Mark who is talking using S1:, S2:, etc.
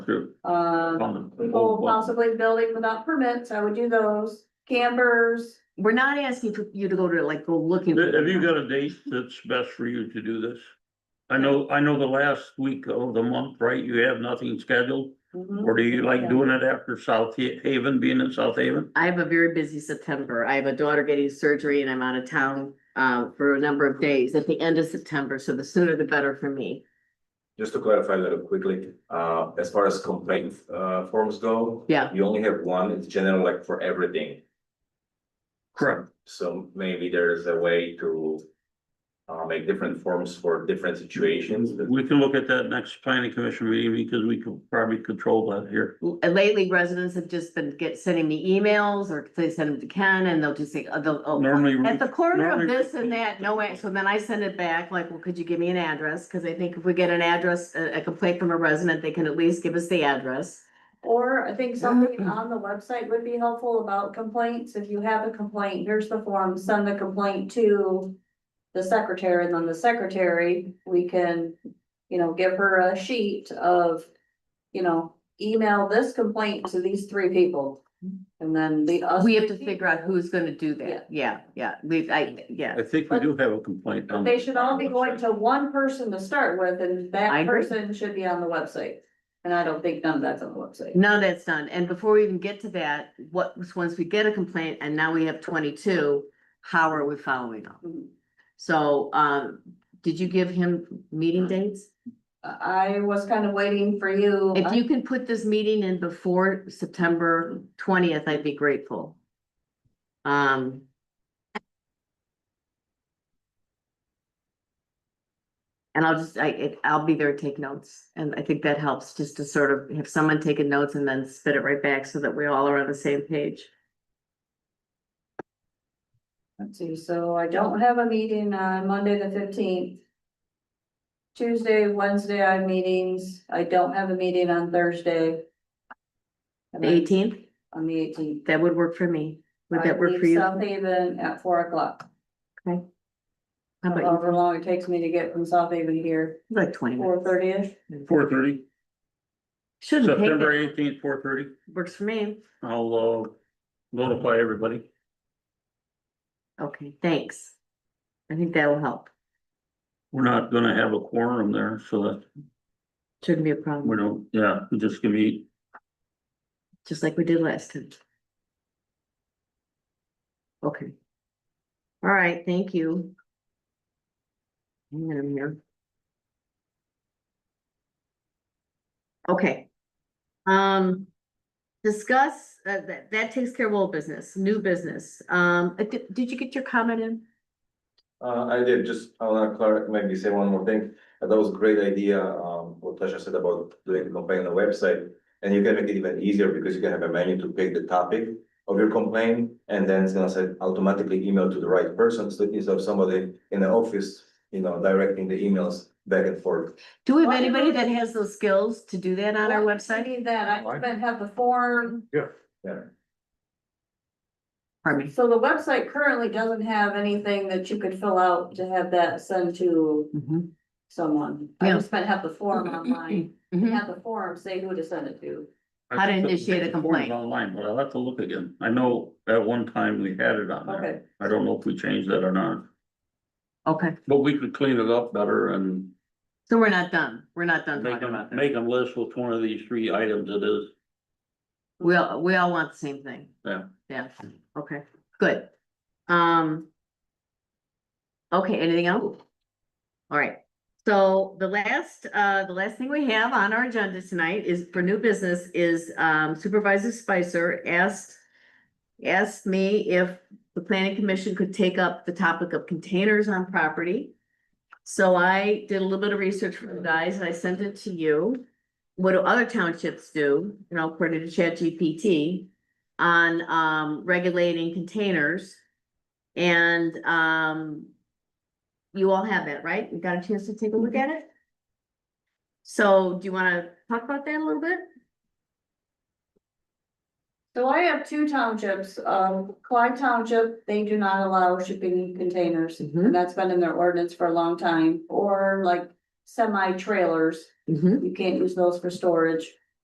S1: True.
S2: Uh,
S1: On the
S2: people
S1: whole-
S2: possibly building without permits, I would do those, campers.
S3: We're not asking for you to go to like, go looking. for
S1: Have you
S3: them.
S1: got a date that's best for you to do this? I know, I know the last week of the month, right? You have nothing scheduled? Mm-hmm. Or do
S3: Mm-hmm.
S1: you like doing it after South Ha- Haven, being in South Haven?
S3: I have a very busy September. I have a daughter getting surgery and I'm out of town uh for a number of days at the end of September, so the sooner the better for me.
S4: Just to clarify a little quickly, uh, as far as complaint, uh, forms go.
S3: Yeah.
S4: You only have one, it's general like for everything,
S1: Correct.
S4: so maybe there is a way to. Uh, make different forms for different situations, but
S1: We can look at that next planning commission meeting because we can probably control that here.
S3: L- Lately residents have just been get sending me emails or they send them to Ken and they'll just say, oh, they'll, oh.
S1: Normally. we-
S3: At the corner of
S1: normally-
S3: this and that, no, way. so then I send it back, like, well, could you give me an address? Cause I think if we get an address, a a complaint from a resident, they can at least give us the address.
S2: Or I think
S3: Mm-hmm.
S2: something on the website would be helpful about complaints, if you have a complaint, here's the form, send the complaint to. The secretary, and then the secretary, we can, you know, give her a sheet of, you know, email this complaint to these three people. And then the. us-
S3: We have to figure out who's gonna do that. Yeah, yeah, we, I, yeah.
S1: I think we do have a complaint.
S3: Um,
S1: on-
S2: They should all be going to one person to start with, and
S3: I
S2: that
S3: agree.
S2: person should be on the website. And I don't think none of that's on the website.
S3: None of that's done. And before we even get to that, what, once we get a complaint and now we have twenty-two, how are we following up?
S2: Mhm.
S3: So, um, did you give him meeting dates?
S2: I was kind of waiting for you.
S3: If you can put this meeting in before September twentieth, I'd be grateful. Um. And I'll just, I, it- I'll be there, to take notes, and I think that helps, just to sort of have someone taking notes and then spit it right back so that we all are on the same page.
S2: Let's see, so I don't have a meeting on Monday the fifteenth. Tuesday, Wednesday, I have meetings. I don't have a meeting on Thursday. And
S3: The
S2: then
S3: eighteenth,
S2: On the eighteenth.
S3: that would work for me, would that work for you? How
S2: South Haven at four o'clock,
S3: about
S2: however long it takes me to get from South Haven here,
S3: you, like twenty
S2: four
S3: minutes?
S2: thirty-ish.
S1: Four thirty,
S3: Shouldn't take
S1: September
S3: that,
S1: eighteenth, four thirty.
S3: works for me,
S1: I'll uh, notify everybody.
S3: okay, thanks. I think that'll help,
S1: We're not gonna have a quorum there, so that
S3: shouldn't be a problem.
S1: we don't, yeah, we're just gonna be
S3: just like we did last time. Okay. All right, thank you. Hang on a minute. Okay. Um, discuss, uh, that, that takes care of old business, new business. Um, uh, did, did you get your comment in?
S4: Uh, I did, just, I wanna clarify, maybe say one more thing, Uh, that was a great idea, um, what Tasha said about doing the complaint on the website. And you can make it even easier because you can have a menu to pick the topic of your complaint, and then it's gonna say automatically email to the right person, so instead of somebody in the office, you know, directing the emails back and forth.
S3: Do we have
S2: Well, you know-
S3: anybody that has those skills to do that on our
S2: I
S3: website?
S2: need that, I even have the form,
S3: Pardon me.
S2: so the website currently doesn't have anything that you could fill out to have that sent to
S3: Mhm.
S2: someone. I
S3: Yeah. Mm-hmm.
S2: just spent half the form online,
S3: Mhm.
S2: have the form say who to send it to.
S3: How to initiate a complaint.
S1: Online, but I'll have to look again. I know at one time we had it on there.
S2: Okay,
S1: I don't know if we changed that or not,
S3: Okay,
S1: but we could clean it up better and
S3: so we're not done, we're not done
S1: make
S3: talking
S1: them,
S3: about that.
S1: make them list which one of these three items it is.
S3: We all, we all want the same thing.
S1: Yeah.
S3: Yeah, okay, good. Um. Okay, anything else? All right, so the last, uh, the last thing we have on our agenda tonight is for new business is um Supervisor Spicer asked. Asked me if the planning commission could take up the topic of containers on property. So I did a little bit of research for you guys and I sent it to you. What do other townships do, you know, according to ChatGPT on um regulating containers? And um you all have that, right? You got a chance to take a look at it? So do you wanna talk about that a little bit?
S2: so I have two townships, um, Clyde Township, they do not allow shipping containers.
S3: Mm-hmm.
S2: And that's been in their ordinance for a long time, or like semi trailers,
S3: Mm-hmm.
S2: you can't use those for storage.